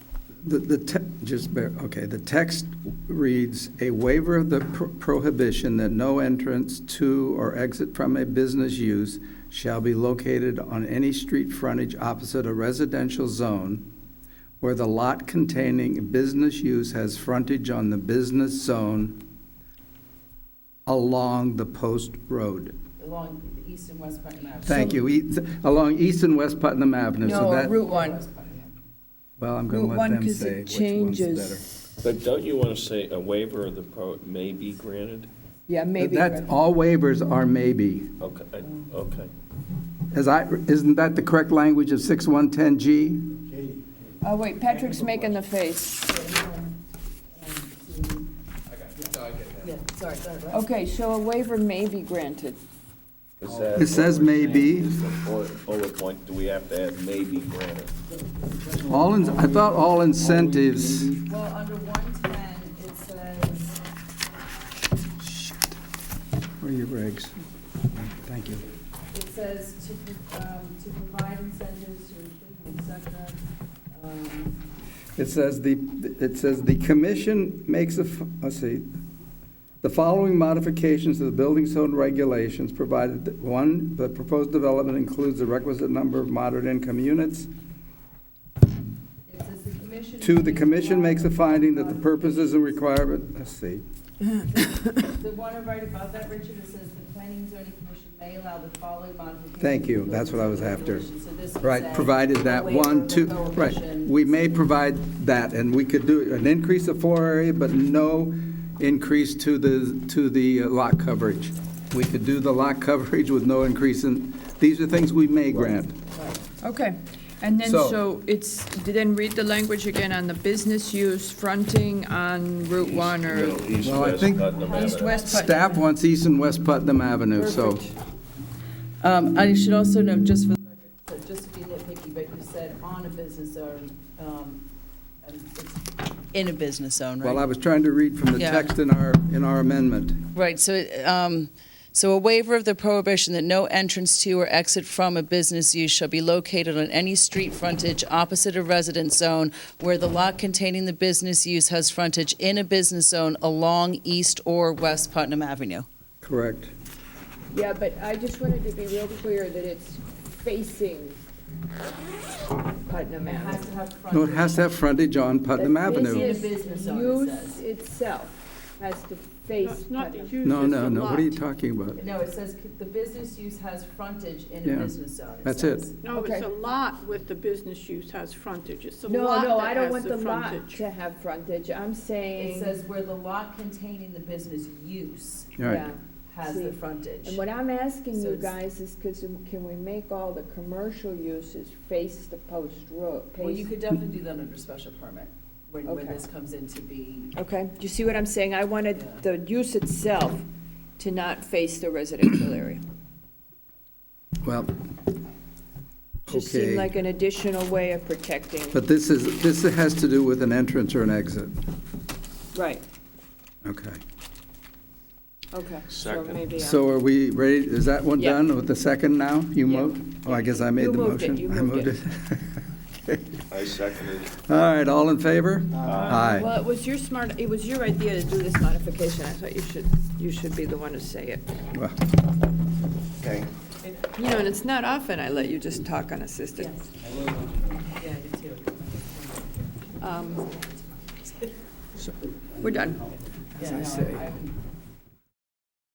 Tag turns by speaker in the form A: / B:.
A: The, the, te- just bear, okay, the text reads, "A waiver of the pro- prohibition that no entrance to or exit from a business use shall be located on any street frontage opposite a residential zone where the lot containing business use has frontage on the business zone along the post road."
B: along the east and west Putnam Avenue.
A: Thank you, E- along East and West Putnam Avenue, so
C: No,
A: that,
C: Route 1.
B: West Putnam Avenue.
A: well, I'm
C: Route
A: going to
C: 1,
A: let them
C: because it
A: say which one's better.
C: changes.
D: But don't you want to say a waiver of the pro, may be granted?
C: Yeah, maybe.
A: That's, all waivers are maybe.
D: Okay, okay.
A: Is I, isn't that the correct language of 6110G?
C: Oh, wait, Patrick's making the face.
B: Yeah, sorry, sorry. about that.
C: Okay, so a waiver may be granted.
D: Is that
A: It says
D: what we're
A: may
D: saying?
A: be.
D: Is the bullet- Bullet point, oh, do we have to add may be granted?
A: All, in- I thought all incentives,
B: Well, under one ten, it says,
A: where are your regs? Thank you.
B: it says to, um, to provide incentives to improve, et cetera. Um,
A: It says the, it says the commission makes a, f- let's see, the following modifications to the building zone regulations, provided that, one, the proposed development includes the requisite number of moderate income units.
B: It says the commission.
A: Two, the commission makes a finding that the purposes and requirement, let's see,
B: The one right above that, Richard, it says the planning and zoning commission may allow the following modifications.
A: Thank you.
B: to the
A: That's what I was after.
B: regulations." So this would
A: Right,
B: say
A: provided that
B: a waiver
A: one,
B: of the
A: two, right.
B: prohibition.
A: We may provide that, and we could do an increase of floor area, but no increase to the, to the uh, lot coverage. We could do the lot coverage with no increase in, these are things we may grant.
C: Okay, and then,
A: So-
C: so it's, then read the language again on the business use fronting on Route 1 or
D: Middle east,
A: Well, I
D: west,
A: think-
D: Putnam Avenue.
C: east-west Putnam.
A: Staff wants East and West Putnam Avenue, so.
B: Um, I should also note, just for, the record, so just to be nitpicky, but you said on a business zone, um, and it's in a business zone,
A: Well,
B: right?
A: I was trying to read from the
B: Yeah.
A: text in our, in our amendment.
B: Right, so, um, so a waiver of the prohibition that no entrance to or exit from a business use shall be located on any street frontage opposite a residence zone where the lot containing the business use has frontage in a business zone along East or West Putnam Avenue.
A: Correct.
E: Yeah, but I just wanted to be real clear that it's facing Putnam Avenue.
A: No, it has to have frontage on Putnam Avenue.
E: The
B: business
E: business
B: zone, it
E: use
B: says.
E: itself has to face Putnam.
A: No, no, no, what are you talking about?
B: No, it says the business use has frontage in
A: a Yeah, business
B: zone.
A: that's it. says.
F: No, it's
E: Okay.
F: a lot with the business use has frontage, it's a
E: No,
F: lot
E: no, I
F: that
E: don't
F: has
E: want the
F: the
E: lot
F: frontage.
E: to have frontage, I'm
B: It
E: saying,
B: says where the lot containing the business use
A: All right.
E: yeah.
B: has the
E: See,
B: frontage.
E: And what I'm asking
B: So
E: you
B: it's-
E: guys is, cause can we make all the commercial uses face the post road?
B: Well, you
E: face-
B: could definitely do that under special permit, when, when
E: Okay.
B: this comes in to be,
E: Okay, do you see what I'm saying? I wanted
B: Yeah.
E: the use itself to not face the residential area.
A: Well,
E: Just seemed
A: Okay.
E: like an additional way of protecting.
A: but this is, this has to do with an entrance or an exit.
E: Right,
A: Okay.
E: okay. So
D: Second.
E: maybe I-
A: So are we ready, is that one
E: Yeah.
A: done with the second now? You
E: Yeah.
A: moved? Oh, I guess I made
E: You
A: the
E: moved it,
A: motion.
E: you
A: I
E: moved it.
A: it.
D: I seconded.
A: All right, all in favor? Aye.
E: Well, it was your smart, it was your idea to do this modification. I thought you should, you should be the one to say it.
A: Well,
D: Okay.
E: You know, and it's not often I let you just talk unassisted.
B: yeah, I do too.
E: Um, We're done.
A: As I say,